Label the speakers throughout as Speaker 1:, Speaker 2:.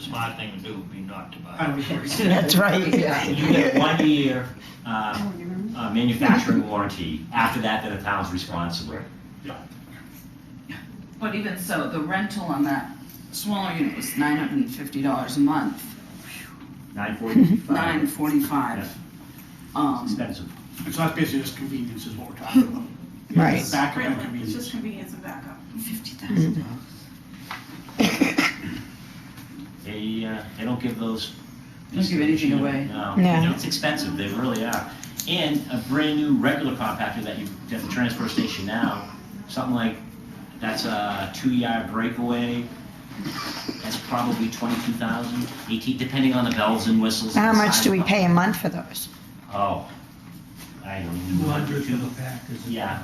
Speaker 1: smart thing to do would be not to buy.
Speaker 2: I would agree.
Speaker 3: That's right.
Speaker 2: Yeah.
Speaker 4: And you get a one-year um, uh, manufacturing warranty. After that, then the town's responsible.
Speaker 5: But even so, the rental on that smaller unit was nine hundred and fifty dollars a month,
Speaker 4: Nine forty-five.
Speaker 5: nine forty-five. Um,
Speaker 4: Expensive.
Speaker 2: It's not business, convenience is what we're talking about.
Speaker 3: Right. Mm-hmm.
Speaker 2: It's Back end
Speaker 6: Really, it's
Speaker 2: convenience.
Speaker 6: just convenience and backup.
Speaker 5: fifty thousand dollars.
Speaker 4: They, uh, they don't give those.
Speaker 5: Don't give anything away.
Speaker 4: No,
Speaker 3: No.
Speaker 4: it's expensive, they really are. And a brand new regular compactor that you, at the transfer station now, something like, that's a two-yard breakaway, that's probably twenty-two thousand, eighteen, depending on the bells and whistles. and
Speaker 3: How
Speaker 4: the
Speaker 3: much
Speaker 4: size
Speaker 3: do we
Speaker 4: of the-
Speaker 3: pay a month for those?
Speaker 4: Oh, I don't know.
Speaker 7: Two hundred for the pack is.
Speaker 4: Yeah,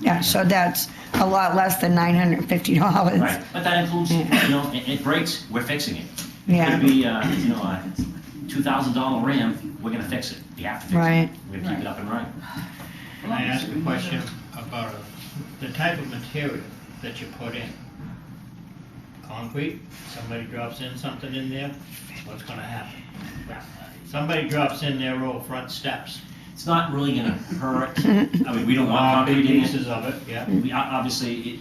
Speaker 3: Yeah, so that's a lot less than nine hundred and fifty dollars.
Speaker 4: right, but that includes, you
Speaker 3: Yeah.
Speaker 4: know, it, it breaks, we're fixing it. It
Speaker 3: Yeah.
Speaker 4: could be, uh, you know, a two thousand dollar RAM, we're gonna fix it, we have to fix it.
Speaker 3: Right.
Speaker 4: We're gonna keep it up and running.
Speaker 1: Can I ask a question about uh, the type of material that you put in? Concrete, somebody drops in something in there, what's gonna happen? Somebody drops in their old front steps,
Speaker 4: It's not really gonna hurt, I mean, we don't want
Speaker 1: big
Speaker 4: concrete in it.
Speaker 1: pieces of it, yeah.
Speaker 4: We, o- obviously, it-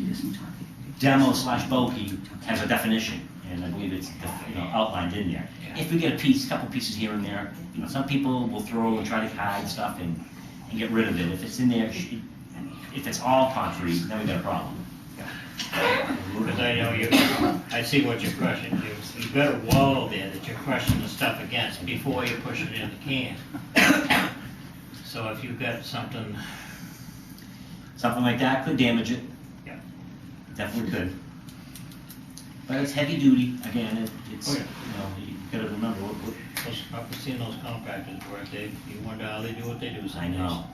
Speaker 4: demo slash bulky has a definition, and I believe it's, you know, outlined in there. If we get a piece, couple pieces here and there, you know, some people will throw and try to hide stuff and, and get rid of it. If it's in there, sh- if it's all concrete, then we got a problem.
Speaker 1: Because I know you, I see what you're crushing, you, you got a wall there that you're crushing the stuff against before you push it in the can. So if you've got something,
Speaker 4: Something like that could damage it.
Speaker 1: Yeah.
Speaker 4: Definitely could. But it's heavy duty, again, it- it's,
Speaker 1: Oh,
Speaker 4: you
Speaker 1: yeah.
Speaker 4: know, you gotta remember, what- what-
Speaker 1: those, I've seen those contractors work, they, you wonder how they do what they do
Speaker 4: I
Speaker 1: sometimes.
Speaker 4: know.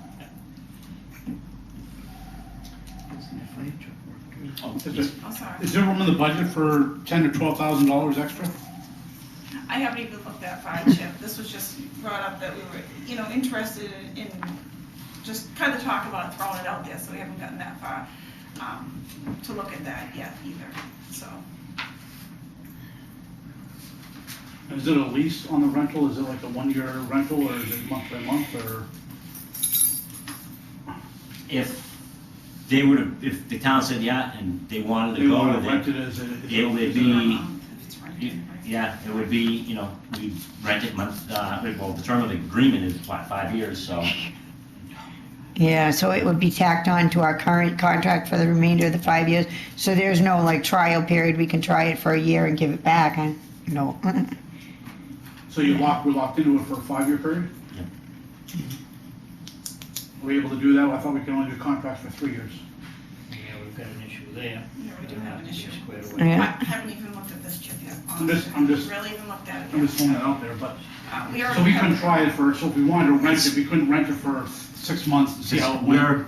Speaker 4: Oh,
Speaker 2: Is
Speaker 4: yes.
Speaker 2: there-
Speaker 6: Oh, sorry.
Speaker 2: Is there room in the budget for ten to twelve thousand dollars extra?
Speaker 6: I haven't even looked that far, Chip. This was just brought up that we were, you know, interested in- in, just kind of talk about it, throwing it out there, so we haven't gotten that far um, to look at that yet either, so.
Speaker 2: Is it a lease on the rental? Is it like a one-year rental or is it month by month or?
Speaker 4: If they were to, if the town said yeah, and they wanted
Speaker 2: They
Speaker 4: to go
Speaker 2: want to rent
Speaker 4: with
Speaker 2: it
Speaker 4: it,
Speaker 2: as a. as a-
Speaker 4: it would
Speaker 6: I
Speaker 4: be,
Speaker 6: don't know um, if it's right.
Speaker 4: it- yeah, it would be, you know, we rent it month, uh, well, the term of the agreement is, what, five years, so.
Speaker 3: Yeah, so it would be tacked on to our current contract for the remainder of the five years. So there's no like trial period. We can try it for a year and give it back. I, no.
Speaker 2: So you lock, we locked into it for a five-year period?
Speaker 4: Yeah.
Speaker 2: Are we able to do that? I thought we could only do contracts for three years.
Speaker 1: Yeah, we've got an issue there.
Speaker 6: Yeah, we do have an issue.
Speaker 1: Squared away.
Speaker 6: I
Speaker 3: Yeah.
Speaker 6: haven't even looked at this, Chip, yet.
Speaker 2: I'm just- I'm just-
Speaker 6: Really even looked at it
Speaker 2: I'm just throwing
Speaker 6: yet.
Speaker 2: that out there, but,
Speaker 6: Uh,
Speaker 2: so
Speaker 6: We
Speaker 2: we
Speaker 6: already
Speaker 2: couldn't
Speaker 6: have,
Speaker 2: try it for, so if we wanted to rent it, we couldn't rent it for six months and see how it went.
Speaker 4: We're,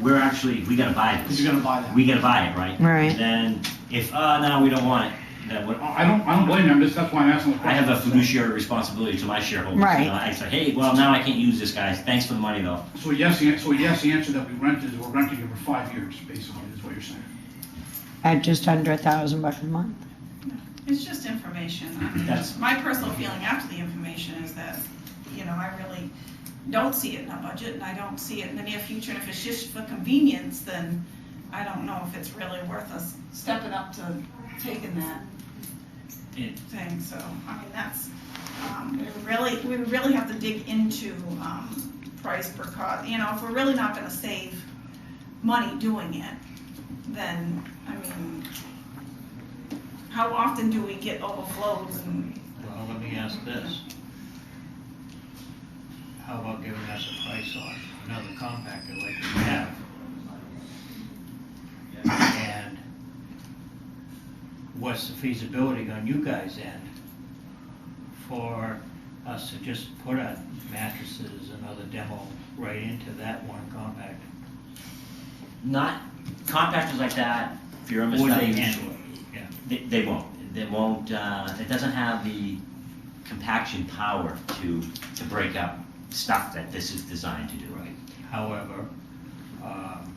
Speaker 4: we're actually, we gotta buy
Speaker 2: Because
Speaker 4: this,
Speaker 2: you're gonna buy that.
Speaker 4: we gotta buy it, right?
Speaker 3: Right.
Speaker 4: Then, if, uh, no, we don't want it, then what,
Speaker 2: I I don't, I don't blame you, I'm just, that's why I'm asking the
Speaker 4: I
Speaker 2: question.
Speaker 4: have a fiduciary responsibility to my shareholders. you
Speaker 3: Right.
Speaker 4: know, I say, hey, well, now I can't use this, guys, thanks for the money, though.
Speaker 2: So yes, the, so yes, the answer that we rent is we're renting it for five years, basically, is what you're saying.
Speaker 3: At just under a thousand bucks a month.
Speaker 6: it's just information. I mean,
Speaker 4: That's-
Speaker 6: My personal feeling after the information is that, you know, I really don't see it in our budget, and I don't see it in the near future. And if it's just for convenience, then I don't know if it's really worth us stepping up to taking that
Speaker 4: It-
Speaker 6: thing, so, I mean, that's, um, we really, we really have to dig into, um, price per cost, you know, if we're really not gonna save money doing it, then, I mean, how often do we get overflows and,
Speaker 1: Well, let me ask this. How about giving us a price on another compactor like we have? And what's the feasibility on you guys' end for us to just put our mattresses and other demo right into that one compactor?
Speaker 4: Not, compactors like that, if you're a
Speaker 1: Would they
Speaker 4: mistake,
Speaker 1: handle it?
Speaker 4: They, they won't. They won't. Uh, it doesn't have the compaction power to to break up stuff that this is designed to do.
Speaker 1: Right. However, um,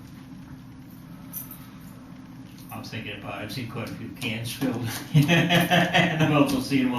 Speaker 1: I'm thinking about, it. I've seen quite a few cans filled. And I've also seen them